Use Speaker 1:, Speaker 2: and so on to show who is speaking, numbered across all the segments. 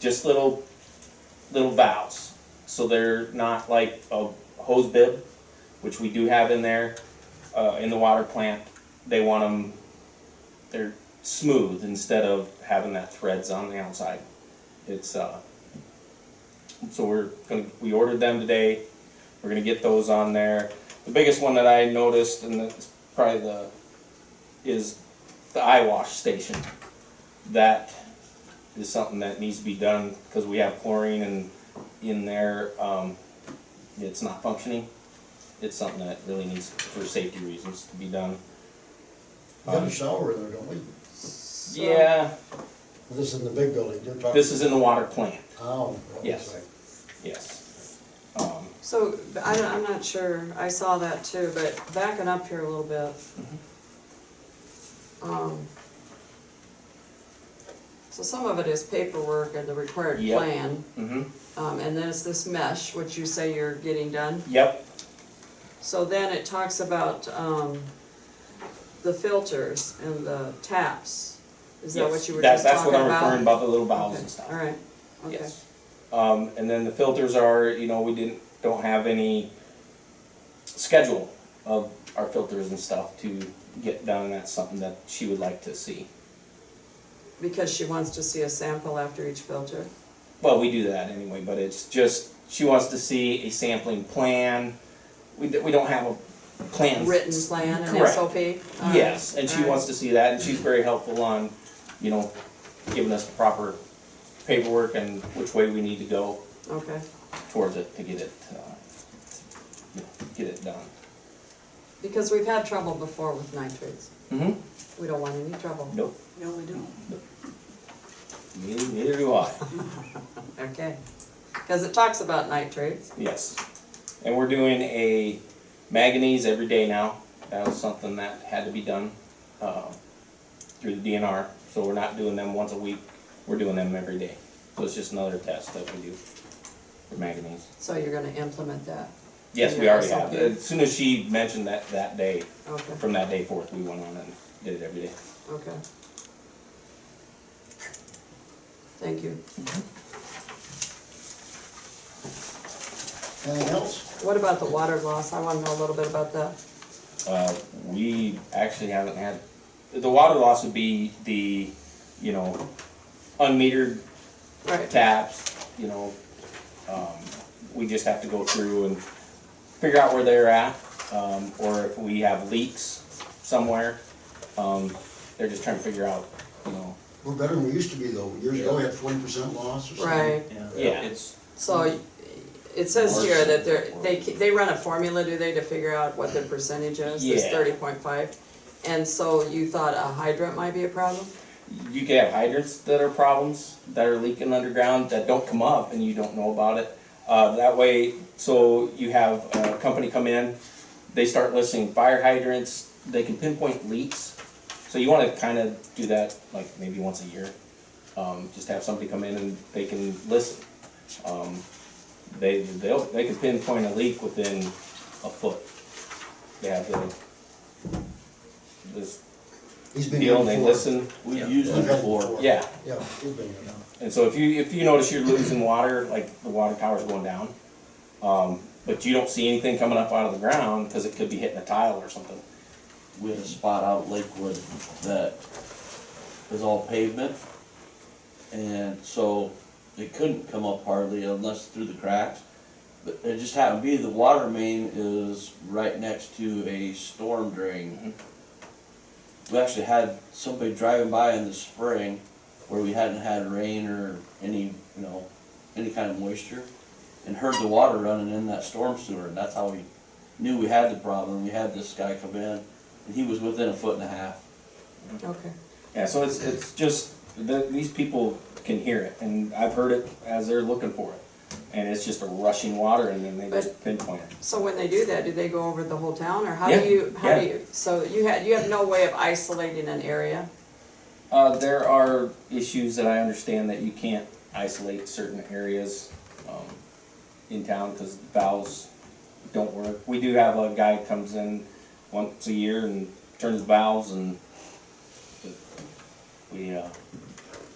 Speaker 1: just little, little valves. So they're not like a hose bib, which we do have in there, uh, in the water plant. They want them, they're smooth instead of having that threads on the outside. It's, uh, so we're gonna, we ordered them today. We're gonna get those on there. The biggest one that I noticed, and that's probably the, is the eye wash station. That is something that needs to be done, because we have chlorine and in there, um, it's not functioning. It's something that really needs, for safety reasons, to be done.
Speaker 2: We have a shower in there, don't we?
Speaker 1: Yeah,
Speaker 2: This is in the big building, you're talking.
Speaker 1: this is in the water plant,
Speaker 2: Oh. right,
Speaker 1: Yes.
Speaker 2: right.
Speaker 1: yes. Um,
Speaker 3: So, I don't, I'm not sure, I saw that too, but backing up here a little bit.
Speaker 1: Mm-hmm.
Speaker 3: Um, So some of it is paperwork and the required
Speaker 1: Yep.
Speaker 3: plan,
Speaker 1: mhm,
Speaker 3: um, and then it's this mesh, which you say you're getting done.
Speaker 1: yep,
Speaker 3: So then it talks about, um, the filters and the taps. Is that what
Speaker 1: yes,
Speaker 3: you were
Speaker 1: that's,
Speaker 3: just
Speaker 1: that's
Speaker 3: talking
Speaker 1: what I'm
Speaker 3: about?
Speaker 1: referring about, the little valves and
Speaker 3: Okay,
Speaker 1: stuff.
Speaker 3: All right, okay.
Speaker 1: Yes. Um, and then the filters are, you know, we didn't, don't have any schedule of our filters and stuff to get done, and that's something that she would like to see.
Speaker 3: Because she wants to see a sample after each filter.
Speaker 1: Well, we do that anyway, but it's just, she wants to see a sampling plan. We, d- we don't have a plan.
Speaker 3: written plan and
Speaker 1: Correct.
Speaker 3: SOP?
Speaker 1: Yes, and she wants to see that, and she's very helpful on, you know, giving us the proper paperwork and which way we need to go
Speaker 3: Okay,
Speaker 1: towards it to get it, uh, you know, get it done.
Speaker 3: because we've had trouble before with nitrates.
Speaker 1: Mm-hmm.
Speaker 3: We don't want any trouble.
Speaker 1: Nope,
Speaker 3: No, we don't.
Speaker 1: neither, neither do I.
Speaker 3: Okay, because it talks about nitrates.
Speaker 1: Yes. And we're doing a manganese every day now. That was something that had to be done uh, through the DNR. So we're not doing them once a week, we're doing them every day. So it's just another test that we do for manganese.
Speaker 3: So you're gonna implement that,
Speaker 1: Yes, we
Speaker 3: Yeah,
Speaker 1: already have.
Speaker 3: something.
Speaker 1: As soon as she mentioned that, that day,
Speaker 3: okay,
Speaker 1: from that day forth, we went on and did it every day.
Speaker 3: okay. Thank you.
Speaker 2: Anything else?
Speaker 3: What about the water loss? I wanna know a little bit about that.
Speaker 1: Uh, we actually haven't had, the water loss would be the, you know, unmetered
Speaker 3: Right,
Speaker 1: taps, you know, um, we just have to go through and figure out where they're at, um, or if we have leaks somewhere. Um, they're just trying to figure out, you know,
Speaker 2: We're better than we used to be though, years ago we had forty percent loss or something.
Speaker 3: right.
Speaker 1: yeah, it's, Mm-hmm.
Speaker 3: So it says here that they're, they, ke- they run a formula, do they, to figure out what their percentage is, It's
Speaker 1: Yeah.
Speaker 3: thirty point five? And so you thought a hydrant might be a problem?
Speaker 1: you could have hydrants that are problems, that are leaking underground, that don't come up and you don't know about it. Uh, that way, so you have a company come in, they start listing fire hydrants, they can pinpoint leaks. So you wanna kinda do that like maybe once a year. Um, just have somebody come in and they can listen. Um, they, they'll, they can pinpoint a leak within a foot. They have the, this
Speaker 2: He's been here
Speaker 1: deal,
Speaker 2: before.
Speaker 1: and they listen,
Speaker 4: We've
Speaker 2: He's
Speaker 4: used
Speaker 2: been
Speaker 4: them
Speaker 2: here
Speaker 4: before.
Speaker 1: yeah.
Speaker 2: Yeah, he's been here now.
Speaker 1: And so if you, if you notice you're losing water, like the water tower's going down, um, but you don't see anything coming up out of the ground, because it could be hitting a tile or something.
Speaker 4: We had a spot out Lakewood that was all pavement. And so it couldn't come up hardly unless through the cracks. But it just happened to be the water main is right next to a storm drain. We actually had somebody driving by in the spring where we hadn't had rain or any, you know, any kind of moisture. And heard the water running in that storm sewer and that's how we knew we had the problem. We had this guy come in and he was within a foot and a half.
Speaker 3: Okay.
Speaker 1: Yeah, so it's, it's just, the, these people can hear it, and I've heard it as they're looking for it. And it's just a rushing water, and then they just pinpoint it.
Speaker 3: So when they do that, do they go over the whole town or how
Speaker 1: Yeah,
Speaker 3: do you, how
Speaker 1: yeah.
Speaker 3: do you, so you had, you have no way of isolating an area?
Speaker 1: Uh, there are issues that I understand that you can't isolate certain areas, um, in town, cause the valves don't work. We do have a guy comes in once a year and turns valves and we, uh,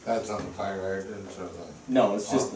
Speaker 5: That's on the fire hydrants or the?
Speaker 6: No, it's just